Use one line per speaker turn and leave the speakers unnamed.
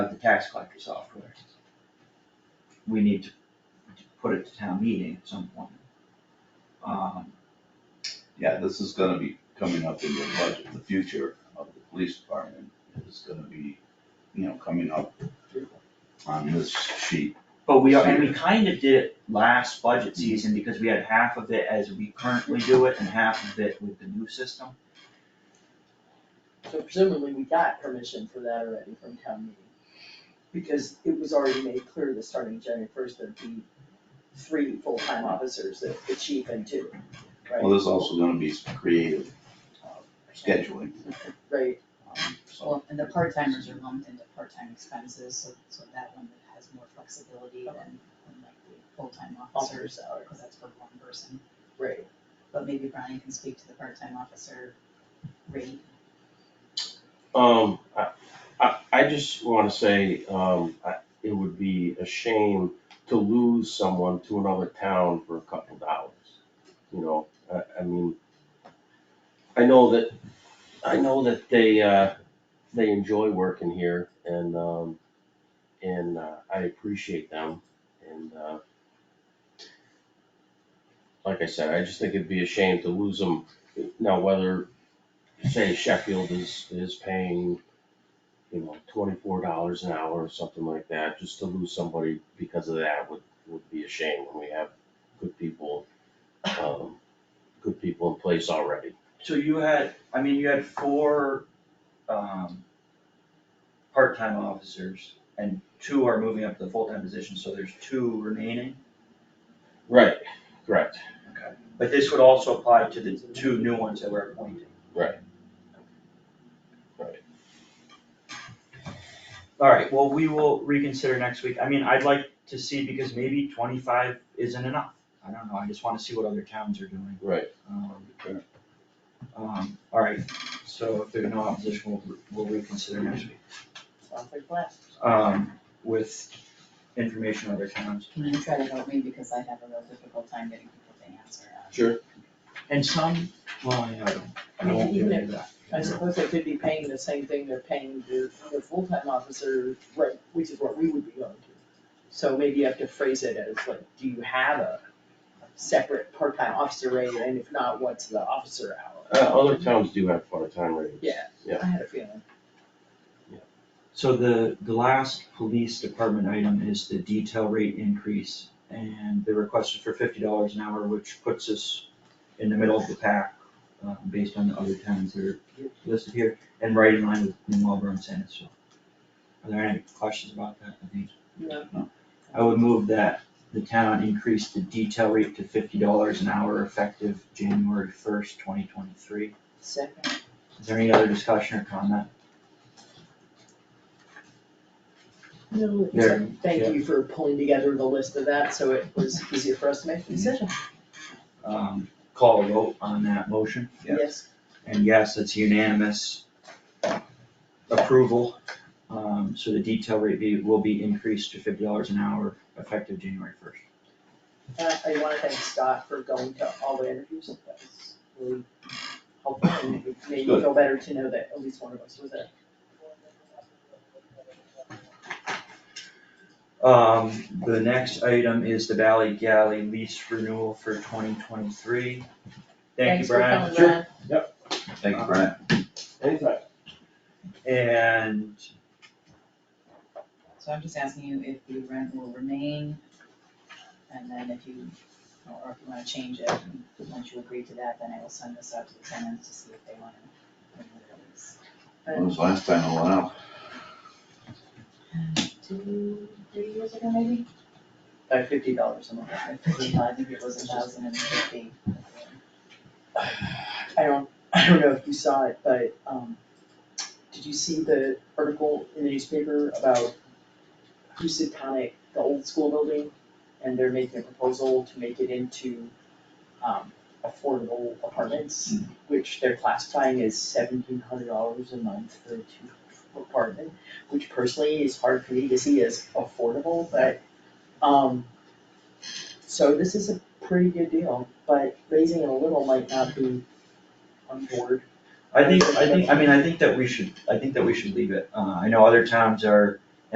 of the tax collector software. We need to to put it to town meeting at some point. Um,
Yeah, this is gonna be coming up in the budget, the future of the police department is gonna be, you know, coming up on this sheet.
But we are, and we kind of did it last budget season because we had half of it as we currently do it and half of it with the new system.
So presumably we got permission for that already from town meeting. Because it was already made clear that starting January first, there'd be three full-time officers, the, the chief and two,
Well, there's also gonna be some creative uh, scheduling,
right?
um, so.
Well, and the part-timers are lumped into part-time expenses, so, so that one has more flexibility than, than like the full-time
Officer
officers,
salary,
because that's for one person.
right,
But maybe Brian can speak to the part-time officer rate.
Um, I, I, I just wanna say, um, I, it would be a shame to lose someone to another town for a couple dollars. You know, I, I mean, I know that, I know that they, uh, they enjoy working here and, um, and, uh, I appreciate them and, uh, like I said, I just think it'd be a shame to lose them. Now, whether say Sheffield is, is paying, you know, twenty-four dollars an hour or something like that, just to lose somebody because of that would, would be a shame when we have good people, um, good people in place already.
So you had, I mean, you had four, um, part-time officers and two are moving up to the full-time position, so there's two remaining.
Right, correct.
But this would also apply to the two new ones that we're appointing.
Right. Right.
Alright, well, we will reconsider next week, I mean, I'd like to see, because maybe twenty-five isn't enough, I don't know, I just wanna see what other towns are doing.
Right.
Um, Um, alright, so if there's no opposition, we'll, we'll reconsider next week,
sounds like blast.
um, with information on other towns.
Can you try to help me, because I have a real difficult time getting people to answer. uh,
Sure.
And some, well, I don't, I
mean,
won't do
even
any of that.
I suppose they could be paying the same thing they're paying the, the full-time officer, right, which is what we would be going to. So maybe you have to phrase it as like, do you have a separate part-time officer rate, and if not, what's the officer hour?
Uh, other towns do have part-time rates.
Yeah.
Yeah.
I had a feeling,
So the, the last police department item is the detail rate increase, and the request is for fifty dollars an hour, which puts us in the middle of the pack, uh, based on the other towns that are listed here, and right in line with New Marlboro and San Francisco. Are there any questions about that? I think,
no,
I would move that the town increase the detail rate to fifty dollars an hour effective January first, twenty twenty-three.
second.
Is there any other discussion or comment?
No,
There,
except thank
yeah.
you for pulling together the list of that, so it was easier for us to make the decision.
Um, call a vote on that motion?
Yeah.
Yes,
And yes, it's unanimous approval. Um, so the detail rate be- will be increased to fifty dollars an hour effective January first.
Uh, I wanna thank Scott for going to all the interviews, that was really helpful, and it made me feel better to know that at least one of us was there.
Um, the next item is the Valley Galley lease renewal for twenty twenty-three. Thank you,
Thanks for
Brian.
coming,
Sure.
Brian.
Thank you, Brent.
Anytime.
And
So I'm just asking you if the rent will remain, and then if you, or if you wanna change it, and once you agree to that, then I will send this out to the tenants to see if they wanna renew their lease.
When was the last time I went out?
Two, three years ago maybe?
By fifty dollars a month.
I think it was a thousand and fifty.
I don't, I don't know if you saw it, but, um, did you see the article in the newspaper about Housatonic, the old school building? And they're making a proposal to make it into, um, affordable apartments, which they're classifying as seventeen hundred dollars a month for a two apartment, which personally is hard for me to see as affordable, but, um, so this is a pretty good deal, but raising it a little might not be on board.
I think, I think, I mean, I think that we should, I think that we should leave it. Uh, I know other towns are